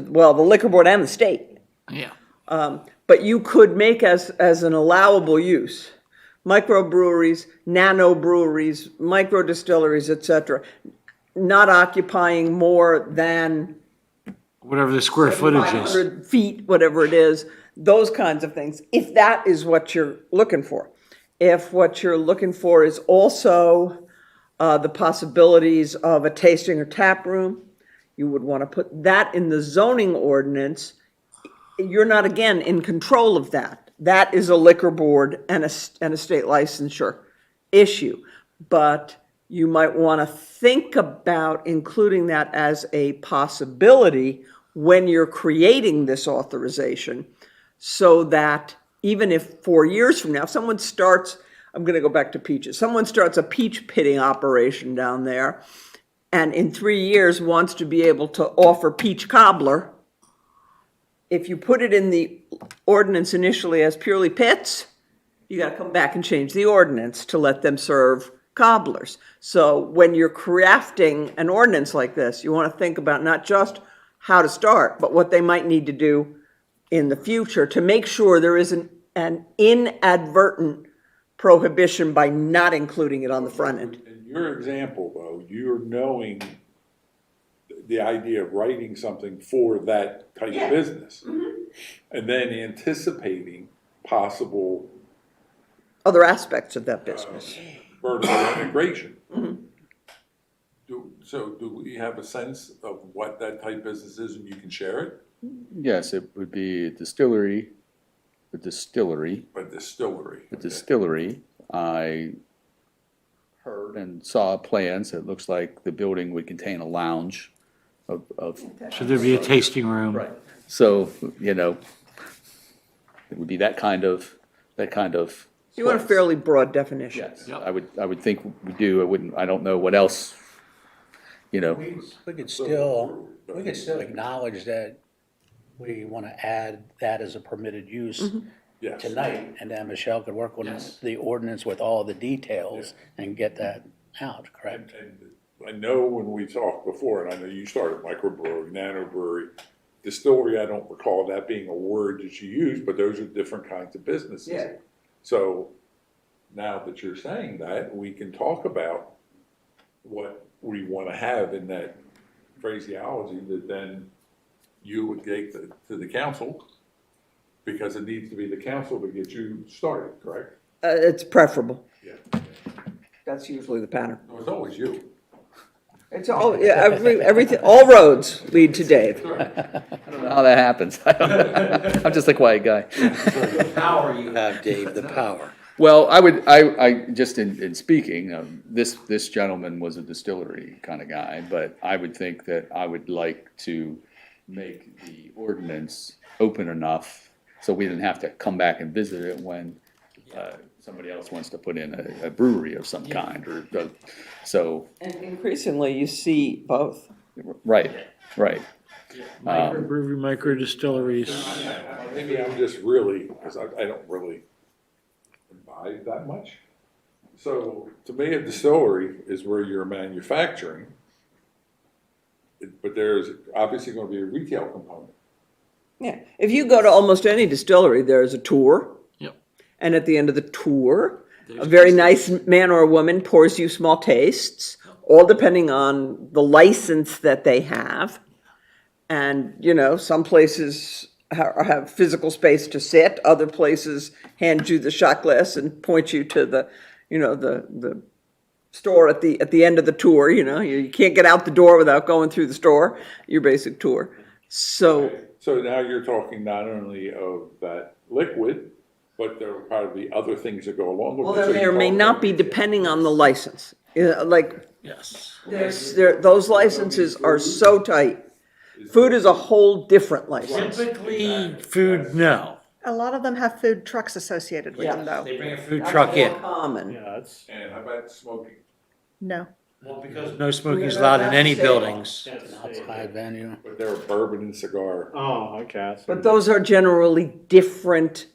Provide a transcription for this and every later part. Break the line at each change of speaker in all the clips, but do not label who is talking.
well, the liquor board and the state.
Yeah.
But you could make as, as an allowable use, microbreweries, nano breweries, micro distilleries, et cetera, not occupying more than
Whatever the square footage is.
500 feet, whatever it is, those kinds of things, if that is what you're looking for. If what you're looking for is also uh, the possibilities of a tasting or tap room, you would want to put that in the zoning ordinance. You're not, again, in control of that. That is a liquor board and a, s- and a state licensure issue. But you might want to think about including that as a possibility when you're creating this authorization so that even if four years from now, if someone starts, I'm going to go back to peaches, someone starts a peach pitting operation down there and in three years wants to be able to offer peach cobbler, if you put it in the ordinance initially as purely pits, you got to come back and change the ordinance to let them serve cobblers. So when you're crafting an ordinance like this, you want to think about not just how to start, but what they might need to do in the future to make sure there isn't an inadvertent prohibition by not including it on the front end.
In your example, though, you're knowing the idea of writing something for that type of business. And then anticipating possible
Other aspects of that business.
vertical integration. Do, so do we have a sense of what that type business is and you can share it?
Yes, it would be a distillery, a distillery,
A distillery.
a distillery. I heard and saw plans. It looks like the building would contain a lounge of, of,
Should there be a tasting room? Um, Right.
so, you know, it would be that kind of, that kind of.
You want a
place.
fairly broad definition.
Yes,
Yep.
I would, I would think we do. I wouldn't, I don't know what else, you know.
We we could still, we could still acknowledge that we want to add that as a permitted use
Yes.
tonight, and then Michelle could work on
Yes.
the ordinance with all the details and get that out, correct?
And I know when we talked before, and I know you started microbrewery, nanobrewery, distillery, I don't recall that being a word that you used, but those are different kinds of businesses.
Yeah.
So now that you're saying that, we can talk about what we want to have in that phraseology that then you would take to to the council, because it needs to be the council to get you started, correct?
Uh, it's preferable.
Yeah.
That's usually the pattern.
No, It's always you.
It's all, yeah, every, everything, all roads lead to Dave.
I don't know how that happens. I don't know. I'm just a quiet guy.
Power you have, Dave, the power.
Well, I would, I, I, just in, in speaking, um, this, this gentleman was a distillery kind of guy, but I would think that I would like to make the ordinance open enough so we didn't have to come back and visit it when, uh, somebody else wants to put in a, a brewery of some kind or, the- so,
And increasingly, you see both.
right, right.
Microbrewery, micro distilleries.
Maybe I'm just really, because I, I don't really imbibe that much. So to me, a distillery is where you're manufacturing. It- But there's obviously going to be a retail component.
Yeah. If you go to almost any distillery, there's a tour.
Yep.
And at the end of the tour, a very nice man or woman pours you small tastes, all depending on the license that they have. And, you know, some places ha- have physical space to sit, other places hand you the shot glass and point you to the, you know, the, the store at the, at the end of the tour, you know, you, you can't get out the door without going through the store, your basic tour. So,
So now you're talking not only of that liquid, but there will probably be other things that go along with it.
well, there
So
may
you
or may
talk
not
about-
be depending on the license, Yeah, like,
Yes.
There's, there, those licenses are so tight. Food is a whole different license.
Typically, food, no.
A lot of them have food trucks associated with them, though.
They bring a food truck in.
Common.
And how about smoking?
No.
No smoking is allowed in any buildings.
Outside venue.
But there are bourbon and cigar.
Oh, okay.
But those are generally different,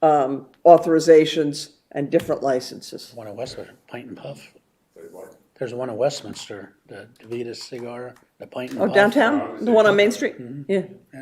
um, authorizations and different licenses.
One in Westminster, Pint and Puff.
They like-
There's one in Westminster, the Davidas cigar The pint and
Oh,
Mm-hmm.
puff.
downtown, the one on Main Street, yeah.